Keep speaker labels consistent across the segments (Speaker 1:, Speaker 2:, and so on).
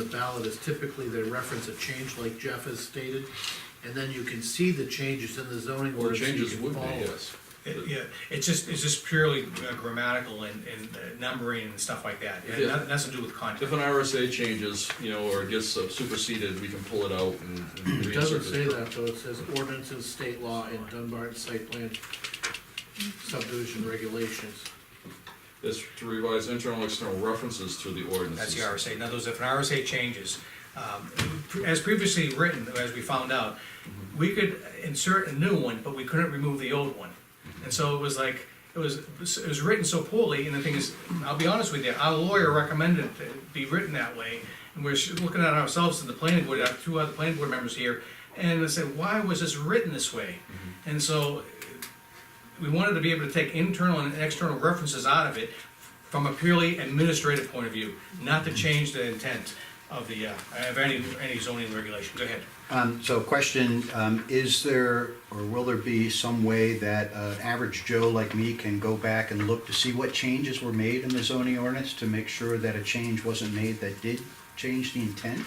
Speaker 1: on the ballot is typically they reference a change like Jeff has stated, and then you can see the changes in the zoning
Speaker 2: Well,
Speaker 1: ordinance.
Speaker 2: changes
Speaker 1: you can
Speaker 2: would be, uh,
Speaker 1: follow.
Speaker 2: yes.
Speaker 3: It- Yeah, it's just, it's just purely uh, grammatical and, and uh, numbering and stuff like that, It had
Speaker 2: Yeah.
Speaker 3: noth- nothing to do with
Speaker 2: If
Speaker 3: content.
Speaker 2: an RSA changes, you know, or gets uh, superseded, we can pull it out and. and
Speaker 1: It doesn't
Speaker 2: reinsert
Speaker 1: say
Speaker 2: this.
Speaker 1: that, though, it says ordinances, state law, and Dunbar site plan subdivision regulations.
Speaker 2: It's to revise internal, and external references to the ordinances.
Speaker 3: That's the RSA, now those, if an RSA changes, um, pre- as previously written, as we found out,
Speaker 2: Mm-hmm.
Speaker 3: we could insert a new one, but we couldn't remove the old one. And so it was like, it was, it was written so poorly, and the thing is, I'll be honest with you, our lawyer recommended it to be written that way. And we're sh- looking at ourselves and the planning board, our two other planning board members here, and I said, why was this written this way?
Speaker 2: Mm-hmm.
Speaker 3: And so we wanted to be able to take internal and external references out of it from a purely administrative point of view, not
Speaker 4: Mm-hmm.
Speaker 3: to change the intent of the, uh, of any, any zoning regulation. Go ahead.
Speaker 4: Um, so question, um, is there, or will there be some way that an average Joe like me can go back and look to see what changes were made in the zoning ordinance to make sure that a change wasn't made that did change the intent?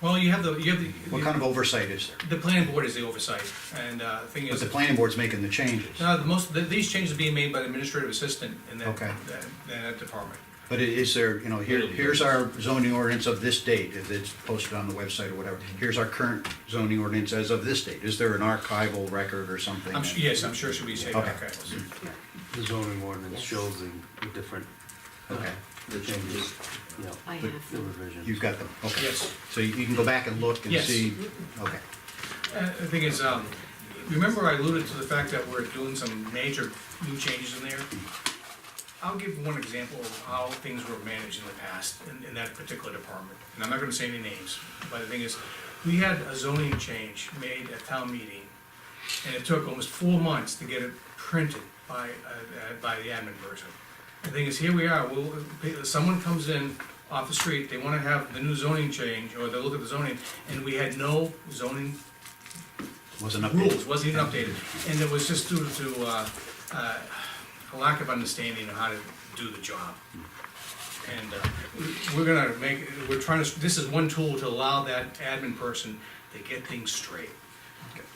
Speaker 3: Well, you have the, you have the.
Speaker 4: What kind of oversight is there?
Speaker 3: The planning board is the oversight, and, uh, the thing
Speaker 4: But
Speaker 3: is,
Speaker 4: the planning board's making the changes,
Speaker 3: no, the most, th- these changes are being made by the administrative assistant in that,
Speaker 4: Okay.
Speaker 3: that, that department.
Speaker 4: but i- is there, you know, here, here's our zoning ordinance of this date, if it's posted on the website or whatever. Here's our current zoning ordinance as of this date. Is there an archival record or something?
Speaker 3: I'm, su- yes, I'm sure she'll be taking
Speaker 4: Okay.
Speaker 3: archives.
Speaker 5: The zoning ordinance shows the different,
Speaker 4: Okay,
Speaker 5: the changes, you know,
Speaker 6: I have
Speaker 5: the
Speaker 6: them.
Speaker 5: revisions.
Speaker 4: you've got them, okay.
Speaker 3: Yes.
Speaker 4: So you you can go back and look and
Speaker 3: Yes.
Speaker 4: see? Okay.
Speaker 3: Uh, The thing is, um, remember I alluded to the fact that we're doing some major new changes in there? I'll give one example of how things were managed in the past in, in that particular department. And I'm not gonna say any names, but the thing is, we had a zoning change made at town meeting, and it took almost four months to get it printed by, uh, uh, by the admin person. The thing is, here we are, we'll, uh, someone comes in off the street, they wanna have the new zoning change, or they look at the zoning, and we had no zoning
Speaker 4: Wasn't
Speaker 3: rules,
Speaker 4: updated.
Speaker 3: wasn't even updated, and it was just due to, uh, uh, a lack of understanding of how to do the job. And, uh, we're gonna make, we're trying to, this is one tool to allow that admin person to get things straight.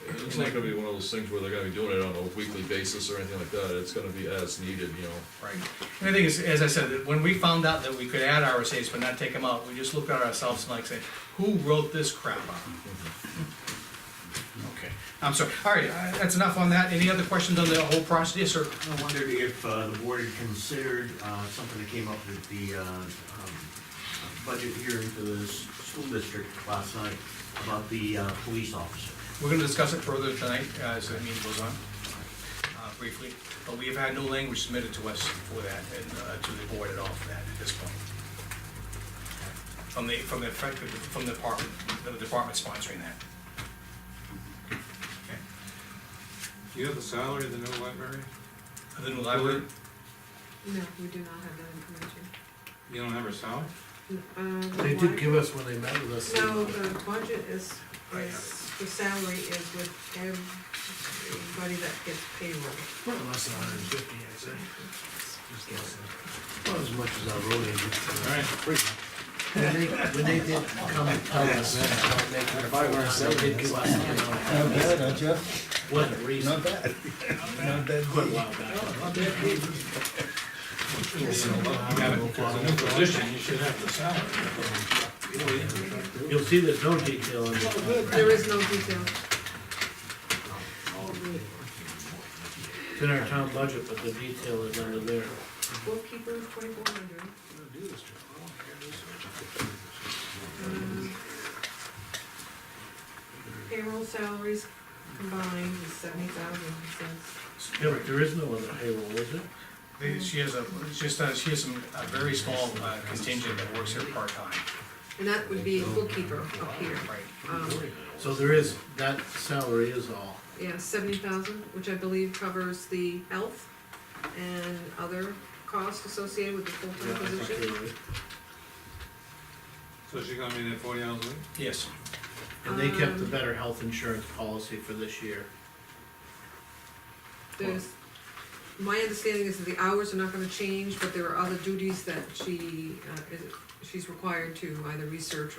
Speaker 2: It's not gonna be one of those things where they're gonna be doing it on a weekly basis or anything like that, it's gonna be as needed, you know.
Speaker 3: Right. And the thing is, as I said, that when we found out that we could add RSA's but not take them out, we just looked at ourselves and like said, who wrote this crap up? Okay, I'm sorry, all right, uh, that's enough on that, any other questions on the whole process, Yes, sir?
Speaker 5: I wondered if uh, the board had considered uh, something that came up at the uh, um, budget hearing for the s- school district last night about the uh, police officer.
Speaker 3: We're gonna discuss it further tonight, uh, as the meeting goes on, uh, briefly, but we have had no language submitted to us for that, and, uh, to the board at all for that at this point. From the, from the, from the department, the department sponsoring that. Okay.
Speaker 7: Do you have the salary of the new library?
Speaker 3: The new library,
Speaker 6: No, we do not have that
Speaker 7: You don't have her salary?
Speaker 6: information. Uh, the
Speaker 1: They did
Speaker 6: wa-
Speaker 1: give us when they met with us. Oh,
Speaker 6: No, the budget is,
Speaker 3: I have
Speaker 6: is, the salary is with everybody that gets payroll.
Speaker 1: Well, Less than a hundred and fifty, I'd say. Just guessing.
Speaker 5: Not as much as our road
Speaker 7: All right,
Speaker 1: When they, when they did come and tell us that, how they could afford it, they did give us, you know,
Speaker 8: Not bad, huh, Jeff?
Speaker 1: what reason,
Speaker 8: Not bad. Not bad.
Speaker 1: quite a while back.
Speaker 7: you have it, it's a new position, you should have the salary.
Speaker 1: You'll see there's no detail in it.
Speaker 6: There is no detail.
Speaker 1: It's in our town budget, but the detail is under there.
Speaker 6: Bookkeeper, twenty-four hundred. Um, Payroll salaries combined is seventy thousand, it says.
Speaker 1: Yeah, but there is no other payroll, is it?
Speaker 3: they- she has a, just, uh, she has some, a very small uh, contingent that works here part-time,
Speaker 6: And that would be a bookkeeper up here.
Speaker 3: right?
Speaker 6: Um,
Speaker 1: So there is, that salary is all.
Speaker 6: yeah, seventy thousand, which I believe covers the health and other costs associated with the
Speaker 1: Yeah,
Speaker 6: full-time
Speaker 1: I think
Speaker 6: position.
Speaker 1: you're right.
Speaker 7: So she's gonna be there forty hours a week?
Speaker 3: Yes,
Speaker 1: And they kept the
Speaker 6: Um,
Speaker 1: better health insurance policy for this year.
Speaker 6: There's my understanding is that the hours are not gonna change, but there are other duties that she, uh, is, she's required to either research